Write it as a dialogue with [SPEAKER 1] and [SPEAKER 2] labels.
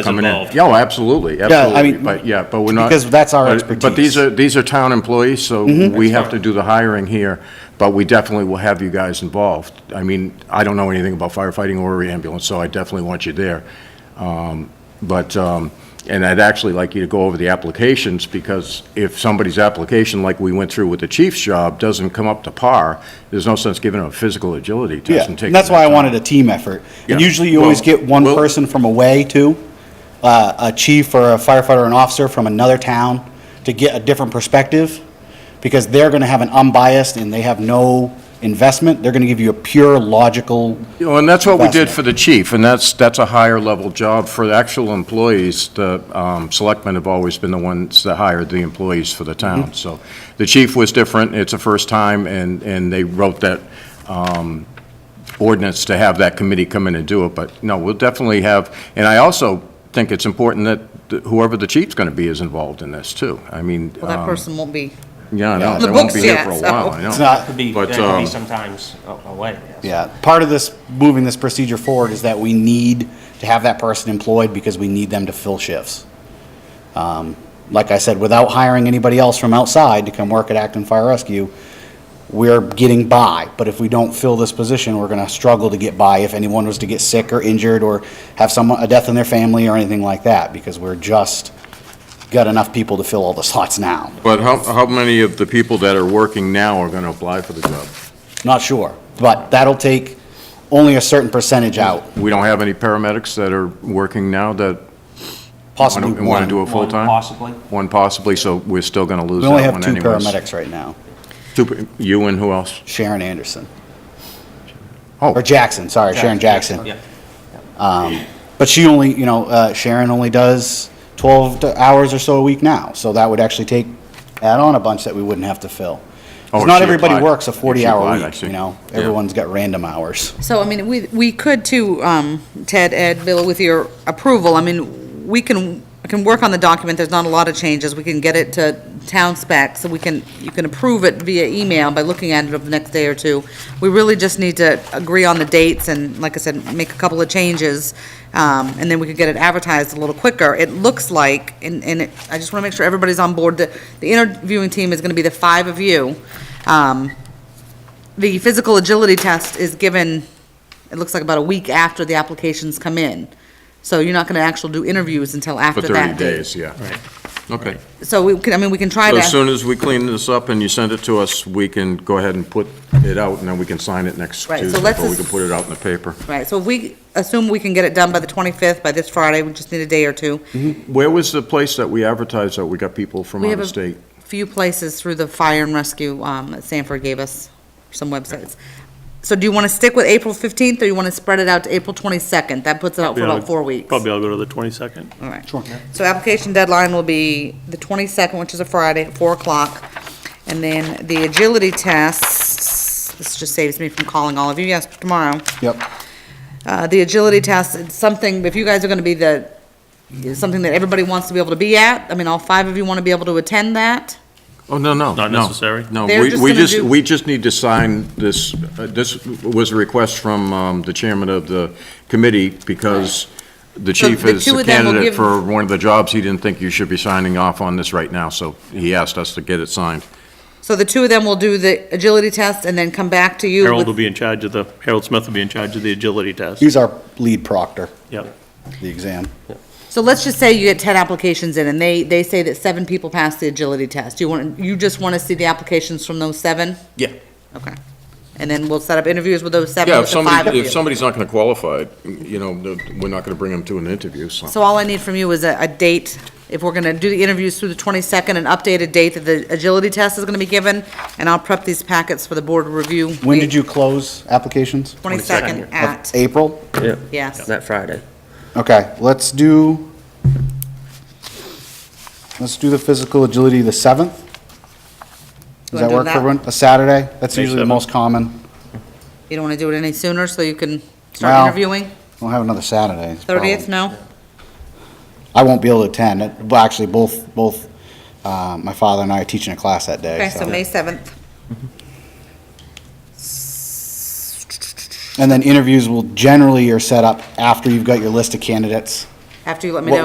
[SPEAKER 1] As
[SPEAKER 2] coming in.
[SPEAKER 1] involved.
[SPEAKER 2] Yeah, oh, absolutely,
[SPEAKER 3] I
[SPEAKER 2] absolutely,
[SPEAKER 3] mean,
[SPEAKER 2] but, yeah, but we're not.
[SPEAKER 3] because that's our
[SPEAKER 2] but- But these
[SPEAKER 3] expertise. Mm-hmm.
[SPEAKER 2] are, these are town employees, so we have to do the hiring here, but we definitely will have you guys involved. I mean, I don't know anything about firefighting or ambulance, so I definitely want you there. Um, But, um, and I'd actually like you to go over the applications, because if somebody's application, like we went through with the chief's job, doesn't come up to par, there's no sense giving them a physical agility
[SPEAKER 3] Yeah,
[SPEAKER 2] test and taking
[SPEAKER 3] and that's
[SPEAKER 2] their
[SPEAKER 3] why I
[SPEAKER 2] time.
[SPEAKER 3] wanted a team effort. And
[SPEAKER 2] Yeah.
[SPEAKER 3] usually you always
[SPEAKER 2] Well,
[SPEAKER 3] get one
[SPEAKER 2] well-
[SPEAKER 3] person from away too, uh, a chief or a firefighter or an officer from another town to get a different perspective because they're going to have an unbiased and they have no investment. They're going to give you a pure logical.
[SPEAKER 2] You know, and that's what we did
[SPEAKER 3] investment.
[SPEAKER 2] for the chief, and that's, that's a higher level job for the actual employees. The um, selectmen have always been the ones that hired the employees for the town, so. The chief was different, it's the first time, and, and they wrote that um, ordinance to have that committee come in and do it, but no, we'll definitely have, and I also think it's important that whoever the chief's gonna be is involved in this, too. I mean,
[SPEAKER 4] Well, that
[SPEAKER 2] um,
[SPEAKER 4] person won't be,
[SPEAKER 2] yeah, no,
[SPEAKER 4] on the
[SPEAKER 2] they won't
[SPEAKER 4] books
[SPEAKER 2] be here
[SPEAKER 4] yet,
[SPEAKER 2] for a
[SPEAKER 4] so.
[SPEAKER 2] while, I know.
[SPEAKER 3] It's not,
[SPEAKER 5] Could be,
[SPEAKER 2] But,
[SPEAKER 5] that could
[SPEAKER 2] um,
[SPEAKER 5] be sometimes a- away. yes.
[SPEAKER 3] yeah, part of this, moving this procedure forward is that we need to have that person employed because we need them to fill shifts. Um, Like I said, without hiring anybody else from outside to come work at Acton Fire Rescue, we're getting by, but if we don't fill this position, we're gonna struggle to get by if anyone was to get sick or injured or have someone, a death in their family or anything like that, because we're just, got enough people to fill all the slots now.
[SPEAKER 2] But how, how many of the people that are working now are gonna apply for the job?
[SPEAKER 3] Not sure, but that'll take only a certain percentage out,
[SPEAKER 2] We don't have any paramedics that are working now that
[SPEAKER 3] possibly one.
[SPEAKER 2] want to do it full-time?
[SPEAKER 5] One possibly.
[SPEAKER 2] One possibly, so we're still going to lose
[SPEAKER 3] We
[SPEAKER 2] that
[SPEAKER 3] only
[SPEAKER 2] one
[SPEAKER 3] have two
[SPEAKER 2] anyways.
[SPEAKER 3] paramedics right now,
[SPEAKER 2] Two pa- You and who else?
[SPEAKER 3] Sharon Anderson.
[SPEAKER 2] Oh.
[SPEAKER 3] Or Jackson, sorry, Sharon Jackson.
[SPEAKER 5] Yeah.
[SPEAKER 3] But she only, you know, uh, Sharon only does 12 to- hours or so a week now, so that would actually take, add on a bunch that we wouldn't have to fill.
[SPEAKER 2] Oh,
[SPEAKER 3] Because
[SPEAKER 2] if
[SPEAKER 3] not
[SPEAKER 2] she
[SPEAKER 3] everybody
[SPEAKER 2] applied.
[SPEAKER 3] works a
[SPEAKER 2] If she applied,
[SPEAKER 3] 40-hour
[SPEAKER 2] I
[SPEAKER 3] week,
[SPEAKER 2] see.
[SPEAKER 3] you know?
[SPEAKER 2] Yeah.
[SPEAKER 3] Everyone's got random hours.
[SPEAKER 4] so, I mean, we, we could too, um, Ted, Ed, Bill, with your approval, I mean, we can, I can work on the document, there's not a lot of changes, we can get it to town spec, so we can, you can approve it via email by looking at it over the next day or two. We really just need to agree on the dates and, like I said, make a couple of changes, um, and then we could get it advertised a little quicker. It looks like, and, and it- I just wanna make sure everybody's on board, that the interviewing team is gonna be the five of you. Um, the physical agility test is given, it looks like about a week after the applications come in. So you're not gonna actually do interviews until
[SPEAKER 2] For
[SPEAKER 4] after that
[SPEAKER 2] 30
[SPEAKER 4] date.
[SPEAKER 2] days, yeah. Okay.
[SPEAKER 4] So we can, I mean, we can try
[SPEAKER 2] So
[SPEAKER 4] to.
[SPEAKER 2] as soon as we clean this up and you send it to us, we can go ahead and put it out, and then we can sign it next
[SPEAKER 4] Right, so
[SPEAKER 2] Tuesday,
[SPEAKER 4] let's
[SPEAKER 2] or we
[SPEAKER 4] just-
[SPEAKER 2] can put it out in the paper.
[SPEAKER 4] Right, so if we assume we can get it done by the 25th, by this Friday, we just need a day or two.
[SPEAKER 2] Where was the place that we advertised that we got people from
[SPEAKER 4] We
[SPEAKER 2] out
[SPEAKER 4] have
[SPEAKER 2] of
[SPEAKER 4] a-
[SPEAKER 2] state?
[SPEAKER 4] Few places through the fire and rescue, um, that Sanford gave us some websites. So do you wanna stick with April 15th, or you wanna spread it out to April 22nd? That puts it out for
[SPEAKER 1] Yeah,
[SPEAKER 4] about four weeks.
[SPEAKER 1] Probably I'll go to the 22nd.
[SPEAKER 4] All right. Sure. So application deadline will be the 22nd, which is a Friday, at 4 o'clock. And then the agility tests, this just saves me from calling all of you, yes, tomorrow.
[SPEAKER 3] Yep.
[SPEAKER 4] Uh, The agility test, it's something, if you guys are going to be the, it's something that everybody wants to be able to be at, I mean, all five of you want to be able to attend that.
[SPEAKER 2] Oh, no, no.
[SPEAKER 1] Not
[SPEAKER 2] no,
[SPEAKER 1] necessary?
[SPEAKER 2] No,
[SPEAKER 4] They're
[SPEAKER 2] we
[SPEAKER 4] just
[SPEAKER 2] we
[SPEAKER 4] gonna
[SPEAKER 2] just,
[SPEAKER 4] do-
[SPEAKER 2] we just need to sign this, uh, this was a request from um, the chairman of the committee because the
[SPEAKER 4] So
[SPEAKER 2] chief
[SPEAKER 4] the
[SPEAKER 2] is
[SPEAKER 4] two
[SPEAKER 2] a
[SPEAKER 4] of them will
[SPEAKER 2] candidate
[SPEAKER 4] give-
[SPEAKER 2] for one of the jobs. He didn't think you should be signing off on this right now, so he asked us to get it signed.
[SPEAKER 4] So the two of them will do the agility test and then come back to you.
[SPEAKER 1] Harold
[SPEAKER 4] with-
[SPEAKER 1] will be in charge of the, Harold Smith will be in charge of the agility test.
[SPEAKER 3] He's our lead proctor,
[SPEAKER 1] Yep.
[SPEAKER 3] the exam.
[SPEAKER 4] So let's just say you get 10 applications in and they, they say that seven people passed the agility test. You want, you just want to see the applications from those seven?
[SPEAKER 2] Yeah.
[SPEAKER 4] Okay. And then we'll set up interviews with those seven,
[SPEAKER 2] Yeah, if
[SPEAKER 4] with the five of
[SPEAKER 2] somebody,
[SPEAKER 4] you.
[SPEAKER 2] if somebody's not going to qualify, you know, we're not going to bring them to an interview, so.
[SPEAKER 4] So all I need from you is a, a date, if we're gonna do the interviews through the twenty-second, an updated date that the agility test is gonna be given, and I'll prep these packets for the board review.
[SPEAKER 3] When did you close applications?
[SPEAKER 4] Twenty-second at,
[SPEAKER 3] April?
[SPEAKER 4] yes.
[SPEAKER 6] That Friday.
[SPEAKER 3] Okay, let's do, let's do the physical agility the 7th. Does
[SPEAKER 4] Wanna
[SPEAKER 3] that
[SPEAKER 4] do
[SPEAKER 3] work for
[SPEAKER 4] that?
[SPEAKER 3] everyone? A Saturday? That's
[SPEAKER 1] May
[SPEAKER 3] usually the
[SPEAKER 1] 7th.
[SPEAKER 3] most common.
[SPEAKER 4] You don't wanna do it any sooner, so you can
[SPEAKER 3] Well, um,
[SPEAKER 4] start interviewing?
[SPEAKER 3] We'll have another Saturday. is the problem.
[SPEAKER 4] Thirtieth, no?
[SPEAKER 3] I won't be able to attend. It- Well, actually, both, both, uh, my father and I are teaching a class that day.
[SPEAKER 4] Okay, so
[SPEAKER 3] so-
[SPEAKER 4] May seventh.
[SPEAKER 3] And then interviews will generally are set up after you've got your list of candidates.
[SPEAKER 4] after you let me
[SPEAKER 3] What-
[SPEAKER 4] know.